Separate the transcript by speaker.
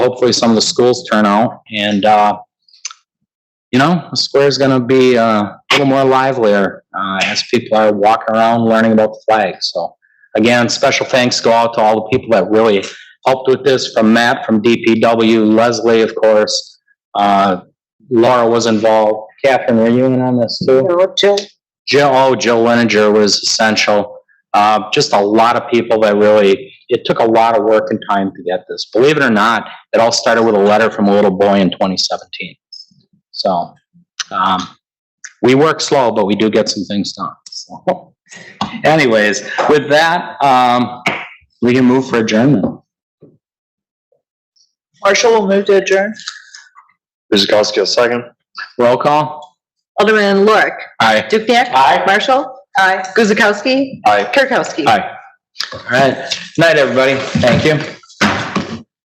Speaker 1: hopefully some of the schools turn out and, uh, you know, the square's gonna be, uh, a little more livelier, uh, as people are walking around learning about the flag, so. Again, special thanks go out to all the people that really helped with this, from Matt, from DPW, Leslie, of course. Uh, Laura was involved. Catherine, were you in on this too?
Speaker 2: No, Jill,
Speaker 1: Jill, oh, Jill Leninger was essential. Uh, just a lot of people that really, it took a lot of work and time to get this. Believe it or not, it all started with a letter from a little boy in 2017. So, um, we work slow, but we do get some things done. So anyways, with that, um, we can move for adjournment.
Speaker 2: Marshall will move to adjourn.
Speaker 3: Guzekowski, a second.
Speaker 1: Roll call?
Speaker 4: Alderman Lorik.
Speaker 1: Aye.
Speaker 4: Dukenyak.
Speaker 1: Aye.
Speaker 4: Marshall. Aye. Guzekowski.
Speaker 3: Aye.
Speaker 4: Kirkowski.
Speaker 1: Aye. All right. Night, everybody. Thank you.